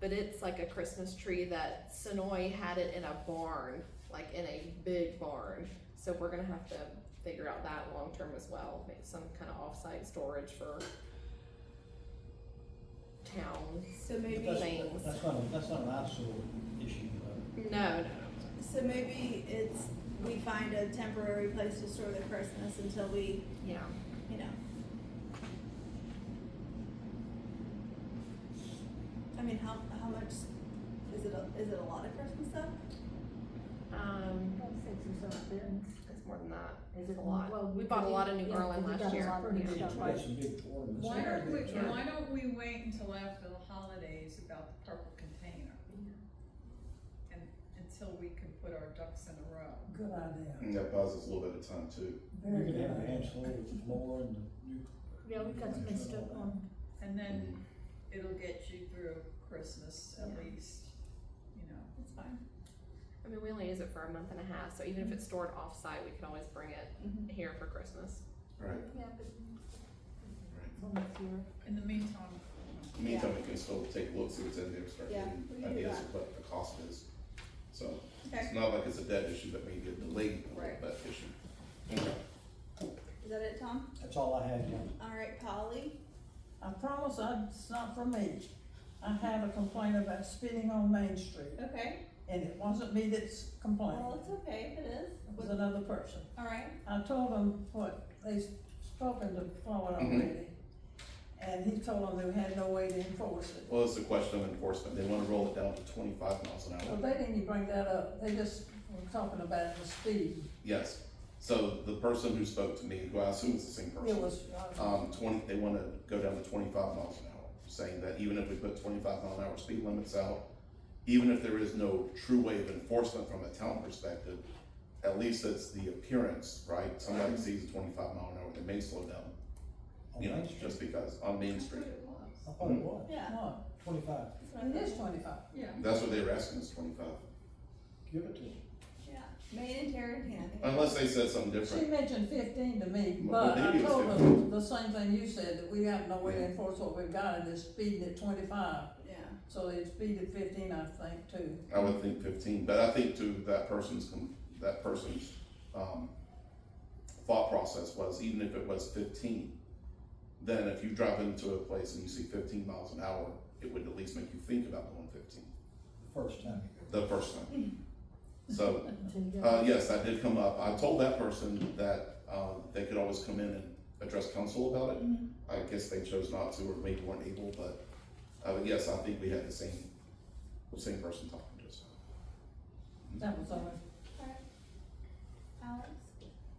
but it's like a Christmas tree that Sonoy had it in a barn, like in a big barn. So we're gonna have to figure out that long term as well, make some kind of offsite storage for town. So maybe, That's- things. That's not, that's not an absolute issue, but No, no, no. so maybe it's, we find a temporary place to store the Christmas until we, Yeah. you know. I mean, how, how much, is it, a- is it a lot of Christmas stuff? Um, About six or something. it's more than that. Is It's it a lot. well, We bought a lot of New yeah, Garland we last got a year. lot of new it's stuff, got right? some big tournaments. Why don't we, Yeah. uh, why don't we wait until after the holidays about the purple container? And until we can put our ducks in a row. Good idea, And that buys us a little bit of time too. You very could good have a idea. handful with floor and the new. Yeah, we've got some good stuff on, And then it'll get you through Christmas at Yeah. least, you know. It's fine. I mean, we only use it for a month and a half, so even Mm-hmm. if it's stored offsite, we can always bring it Mhm. here for Christmas. Right. yeah, but on this year. In the meantime, Meantime, we can still take a look, see what's in there, start Yeah, getting we can do ideas that. of what the cost is. So Okay, it's not like it's a debt issue, but maybe a delayed Right. debt issue. Okay. is that it, Tom? That's all I had, yeah. All right, Polly, I promise I, it's not for me. I have a complaint about spitting on Main Street, okay, and it wasn't me that's well, complaining, it's okay if it is, it was another person. all right. I told him what, they've spoken to Floyd already, and he told them they had no way to enforce it. Well, it's a question of enforcement. They wanna roll it down to twenty-five miles an Well, Um, hour. they didn't even bring that up, they just were talking about the speed. Yes. So the person who spoke to me, who I assume is the same It person, was, uh, um, twenty, they wanna go down to twenty-five miles an hour, saying that even if we put twenty-five mile an hour speed limits out, even if there is no true way of enforcement from a town perspective, at least it's the appearance, right? Somebody sees a twenty-five mile an hour, they may slow down, On you know, Main Street. just because, on Main Street. I thought it was. Yeah. what, Twenty-five, that's what I it is thought. twenty-five. yeah. That's what they were asking, is twenty-five. give it to them. Yeah, made in Tarrentine. Unless they said something She different. mentioned fifteen to me, Well, but I maybe it's told 15. them the same thing you said, that we have no way to Yeah. enforce what we've got, and they're speeding at twenty-five. Yeah. So they speeded fifteen, I think, too. I would think fifteen, but I think to that person's, com- that person's, um, thought process was, even if it was fifteen, then if you drive into a place and you see fifteen miles an hour, it would at least make you think about going fifteen, the first time. the first time. So, Until you get- uh, yes, that did come up. I told that person that, uh, they could always come in and address council about it. Mhm. I guess they chose not to, or maybe weren't able, but, uh, yes, I think we had the same, the same person talking to us. That was all. Alex,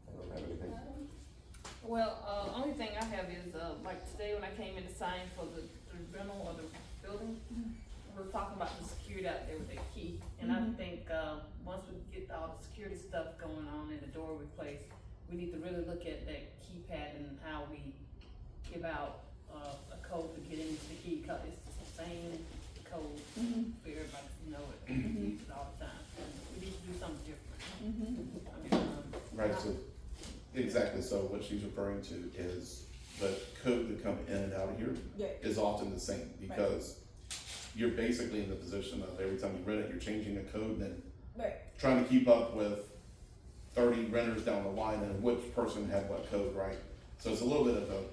I don't have anything. Adam? Well, uh, only thing I have is, uh, like today when I came in to sign for the, the rental of the building, we we're talking about the security out there with the key, and I Mhm. think, uh, once we get all the security stuff going on and the door replaced, we need to really look at that keypad and how we give out, uh, a code to get into the key, 'cause it's the same code Mhm. for everybody to know it, and use it all the time, we need to do something different. Mhm. I mean, um, Right, so, exactly, so what she's referring to is the code that come in and out of here Yeah. is often the same, because you're basically in the position of every time you rent it, you're changing the code and then Right. trying to keep up with thirty renters down the line and which person had what code, right? So it's a little bit of a,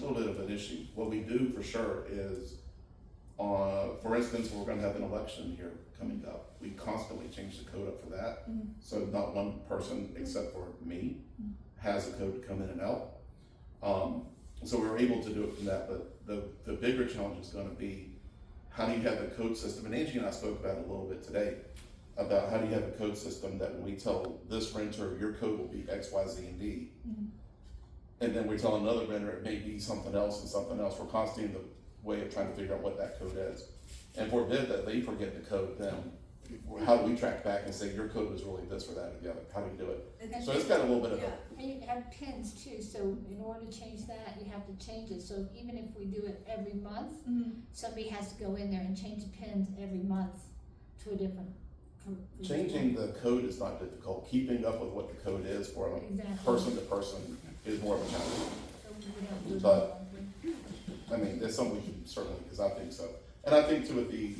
little bit of an issue. What we do for sure is, uh, for instance, we're gonna have an election here coming up. We constantly change the code up for that. Mhm. So not one person, except for me, has a code to come in and out. Um, so we were able to do it from that, but the, the bigger challenge is gonna be, how do you have the code system? And Angie and I spoke about it a little bit today about how do you have a code system that when we tell this renter, your code will be X, Y, Z, and D. Mhm. And then we tell another renter, it may be something else and something else. We're constantly in the way of trying to figure out what that code is. And forbid that they forget the code, then how do we track back and say your code was really this or that or the other? How do you do it? So it's got a little bit of a, Yeah. And you have pins too, so in order to change that, you have to change it, so even if we do it every month, Mm-hmm. Mhm. somebody has to go in there and change the pins every month to a different. from- from- changing the code is not difficult. Keeping up with what the code is for a Exactly. person to person is more of a challenge. So we don't do it But- all. I mean, that's something we can certainly, because I think so. And I think too, with the,